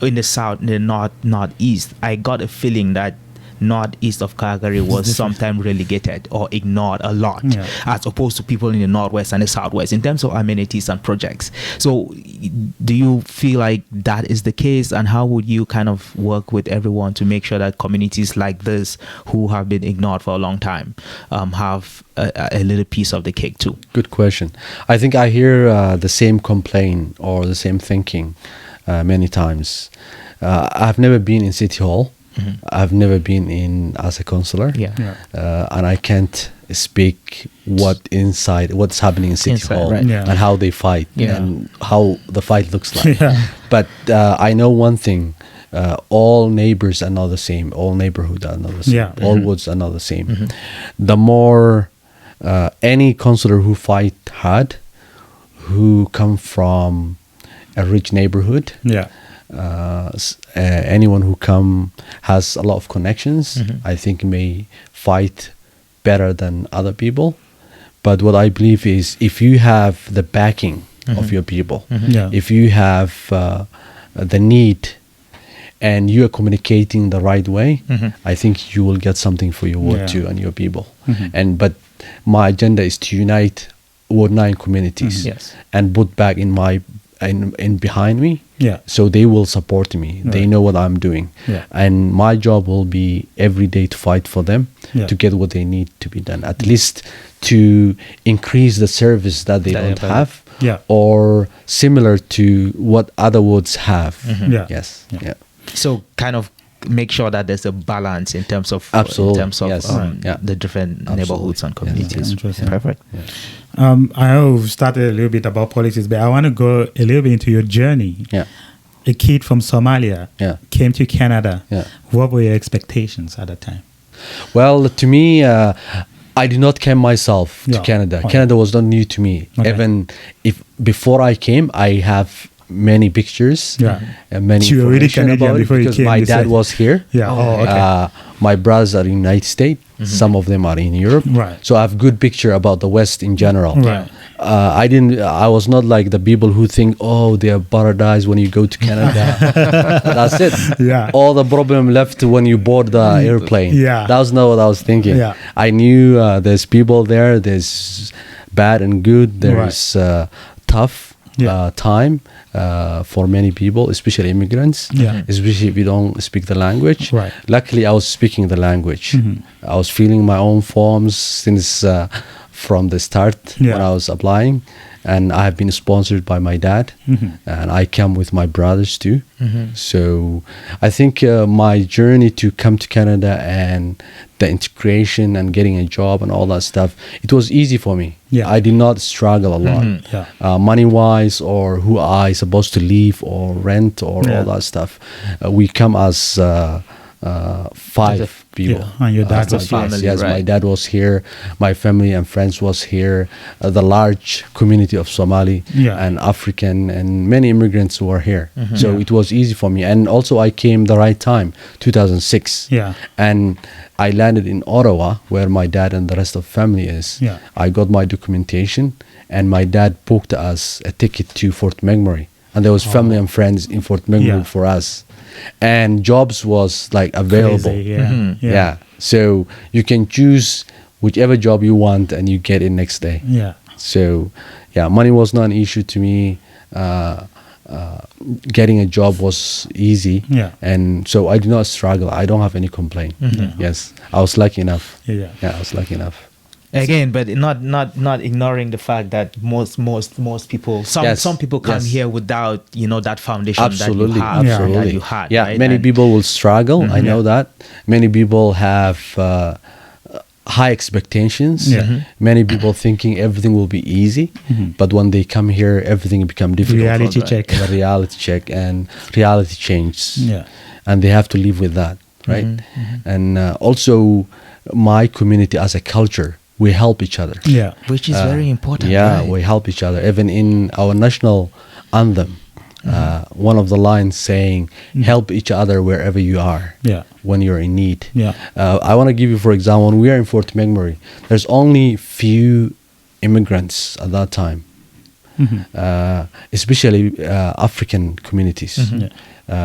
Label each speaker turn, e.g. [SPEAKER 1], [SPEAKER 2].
[SPEAKER 1] in the south, in the north, northeast, I got a feeling that northeast of Calgary was sometimes relegated or ignored a lot,
[SPEAKER 2] Yeah.
[SPEAKER 1] as opposed to people in the northwest and the southwest in terms of amenities and projects. So, do you feel like that is the case, and how would you kind of work with everyone to make sure that communities like this, who have been ignored for a long time, um, have a, a little piece of the cake too?
[SPEAKER 3] Good question. I think I hear uh, the same complaint or the same thinking uh, many times. Uh, I've never been in City Hall. I've never been in as a counselor.
[SPEAKER 1] Yeah.
[SPEAKER 2] Yeah.
[SPEAKER 3] Uh, and I can't speak what inside what's happening in City
[SPEAKER 1] Inside,
[SPEAKER 3] Hall
[SPEAKER 1] right.
[SPEAKER 2] Yeah.
[SPEAKER 3] and how they fight
[SPEAKER 1] Yeah.
[SPEAKER 3] and how the fight looks like.
[SPEAKER 2] Yeah.
[SPEAKER 3] But uh, I know one thing: uh, all neighbors are not the same. All neighborhood are not the same.
[SPEAKER 2] Yeah.
[SPEAKER 1] Mm-hmm.
[SPEAKER 3] All woods are not the same. The more uh, any counselor who fight hard, who come from a rich neighborhood,
[SPEAKER 2] Yeah.
[SPEAKER 3] uh, s- uh, anyone who come has a lot of connections
[SPEAKER 2] Mm-hmm.
[SPEAKER 3] i think may fight better than other people but what i believe is if you have the backing of your people
[SPEAKER 2] Mm-hmm. Yeah.
[SPEAKER 3] if you have uh, the need and you are communicating the right way i think you will get something for your ward
[SPEAKER 2] Mm-hmm. Yeah.
[SPEAKER 3] too and your people
[SPEAKER 2] Mhm.
[SPEAKER 3] and but my agenda is to unite ward 9 communities
[SPEAKER 1] Mhm. Yes.
[SPEAKER 3] and put back in my in, in behind me
[SPEAKER 2] Yeah.
[SPEAKER 3] so they will support me they
[SPEAKER 2] Right.
[SPEAKER 3] know what i'm doing
[SPEAKER 2] Yeah.
[SPEAKER 3] and my job will be every day to fight for them
[SPEAKER 2] Yeah.
[SPEAKER 3] to get what they need to be done at least to increase the service that they
[SPEAKER 1] That they
[SPEAKER 3] don't
[SPEAKER 1] have.
[SPEAKER 3] have
[SPEAKER 2] Yeah.
[SPEAKER 3] or similar to what other woods have
[SPEAKER 2] Mm-hmm. Yeah.
[SPEAKER 3] yes
[SPEAKER 2] Yeah.
[SPEAKER 3] yeah,
[SPEAKER 1] so kind of make sure that there's a balance in terms of
[SPEAKER 3] Absolutely,
[SPEAKER 1] in terms of
[SPEAKER 3] yes.
[SPEAKER 1] um,
[SPEAKER 3] Yeah.
[SPEAKER 1] the different
[SPEAKER 3] Absolutely,
[SPEAKER 1] neighborhoods and
[SPEAKER 3] yes.
[SPEAKER 1] communities
[SPEAKER 2] Interesting.
[SPEAKER 1] perfect
[SPEAKER 2] Um, I know we've started a little bit about politics, but I want to go a little bit into your journey.
[SPEAKER 3] Yeah.
[SPEAKER 2] A kid from Somalia
[SPEAKER 3] Yeah.
[SPEAKER 2] came to Canada.
[SPEAKER 3] Yeah.
[SPEAKER 2] What were your expectations at that time?
[SPEAKER 3] Well, to me, uh, I did not come myself
[SPEAKER 2] Yeah.
[SPEAKER 3] to Canada.
[SPEAKER 2] Fine.
[SPEAKER 3] Canada was not new to me.
[SPEAKER 2] Okay.
[SPEAKER 3] Even if before I came, I have many pictures.
[SPEAKER 2] Yeah.
[SPEAKER 3] And many
[SPEAKER 2] So you were already
[SPEAKER 3] information
[SPEAKER 2] Canadian
[SPEAKER 3] about it
[SPEAKER 2] before you
[SPEAKER 3] because
[SPEAKER 2] came,
[SPEAKER 3] my
[SPEAKER 2] you
[SPEAKER 3] dad
[SPEAKER 2] said.
[SPEAKER 3] was here.
[SPEAKER 2] Yeah. Oh, okay. Mm-hmm.
[SPEAKER 3] Uh, my brothers are in United States. Some of them are in Europe.
[SPEAKER 2] Right.
[SPEAKER 3] So I have good picture about the West in general.
[SPEAKER 2] Right.
[SPEAKER 3] Uh, I didn't. I was not like the people who think, oh, they are paradise when you go to Canada. That's it.
[SPEAKER 2] Yeah. Mm.
[SPEAKER 3] All the problem left when you board the airplane.
[SPEAKER 2] Yeah.
[SPEAKER 3] That was not what I was thinking thinking.
[SPEAKER 2] Yeah.
[SPEAKER 3] I knew uh, there's people there. There's bad and good. There
[SPEAKER 2] Right.
[SPEAKER 3] is uh, tough
[SPEAKER 2] Yeah.
[SPEAKER 3] uh, time uh, for many people, especially immigrants.
[SPEAKER 2] Yeah.
[SPEAKER 3] Especially if you don't speak the language.
[SPEAKER 2] Right. Mm-hmm.
[SPEAKER 3] Luckily, I was speaking the language. I was filling my own forms since uh, from the start when
[SPEAKER 2] Yeah.
[SPEAKER 3] I was applying, and I have been sponsored by my dad,
[SPEAKER 2] Mm-hmm.
[SPEAKER 3] and I come with my brothers too. So I think uh, my journey to come to Canada and the integration and getting a job and all that stuff, it was easy for me.
[SPEAKER 2] Yeah. Mm-hmm.
[SPEAKER 3] I did not struggle a lot,
[SPEAKER 2] Yeah.
[SPEAKER 3] uh, money wise, or who I supposed to leave or rent or
[SPEAKER 2] Yeah.
[SPEAKER 3] all that stuff. Uh, we come as uh, uh, five people.
[SPEAKER 2] Yeah, and your
[SPEAKER 3] Uh,
[SPEAKER 2] dad
[SPEAKER 3] as my
[SPEAKER 2] was
[SPEAKER 3] class.
[SPEAKER 1] family,
[SPEAKER 3] Yes, my
[SPEAKER 1] right.
[SPEAKER 3] dad was here. My family and friends was here. Uh, the large community of Somali
[SPEAKER 2] Yeah.
[SPEAKER 3] and African and many immigrants who are here.
[SPEAKER 1] Mm-hmm.
[SPEAKER 3] So
[SPEAKER 2] Yeah.
[SPEAKER 3] it was easy for me. And also I came the right time, 2006.
[SPEAKER 2] Yeah.
[SPEAKER 3] And I landed in Ottawa where my dad and the rest of family is.
[SPEAKER 2] Yeah.
[SPEAKER 3] I got my documentation and my dad booked us a ticket to Fort McMurray. And there was family and friends in Fort McMurray
[SPEAKER 2] Oh. Yeah.
[SPEAKER 3] for us. And jobs was like available.
[SPEAKER 2] Crazy, yeah.
[SPEAKER 1] Mhm.
[SPEAKER 3] Yeah. So you can choose whichever job you want and you get it next day.
[SPEAKER 2] Yeah.
[SPEAKER 3] So yeah, money was not an issue to me. Uh, uh, getting a job was easy.
[SPEAKER 2] Yeah.
[SPEAKER 3] And so I did not struggle. I don't have any complaint. Yes. I was lucky enough.
[SPEAKER 2] Mm-hmm. Yeah.
[SPEAKER 3] Yeah, I was lucky enough.
[SPEAKER 1] again but not not not ignoring the fact that most most most people some
[SPEAKER 3] Yes,
[SPEAKER 1] some people come
[SPEAKER 3] yes.
[SPEAKER 1] here without you know that foundation
[SPEAKER 3] absolutely
[SPEAKER 1] that you have
[SPEAKER 3] absolutely
[SPEAKER 1] that you had
[SPEAKER 3] yeah
[SPEAKER 1] right?
[SPEAKER 3] many
[SPEAKER 1] And-
[SPEAKER 3] people will struggle i
[SPEAKER 2] Mm-hmm.
[SPEAKER 3] know that many people have uh, high expectations
[SPEAKER 2] Yeah.
[SPEAKER 1] Mm-hmm.
[SPEAKER 2] Mhm.
[SPEAKER 3] many people thinking everything will be easy but when they come here everything become difficult for
[SPEAKER 2] Reality
[SPEAKER 3] them.
[SPEAKER 2] check.
[SPEAKER 3] the reality check and reality changes
[SPEAKER 2] Yeah.
[SPEAKER 3] and they have to live with that right
[SPEAKER 2] Mm-hmm,
[SPEAKER 3] and uh, also my community as a culture we help each other
[SPEAKER 2] Yeah.
[SPEAKER 1] which is very important
[SPEAKER 3] uh, yeah,
[SPEAKER 1] right?
[SPEAKER 3] we help each other. Even in our national anthem,
[SPEAKER 2] Mm-hmm.
[SPEAKER 3] uh, one of the lines saying, "Help each other wherever you are."
[SPEAKER 2] Yeah.
[SPEAKER 3] When you're in need.
[SPEAKER 2] Yeah.
[SPEAKER 3] Uh, I want to give you, for example, when we are in Fort McMurray, there's only few immigrants at
[SPEAKER 2] Mm-hmm.
[SPEAKER 3] that time, uh, especially uh, African communities.
[SPEAKER 2] Mm-hmm. Yeah.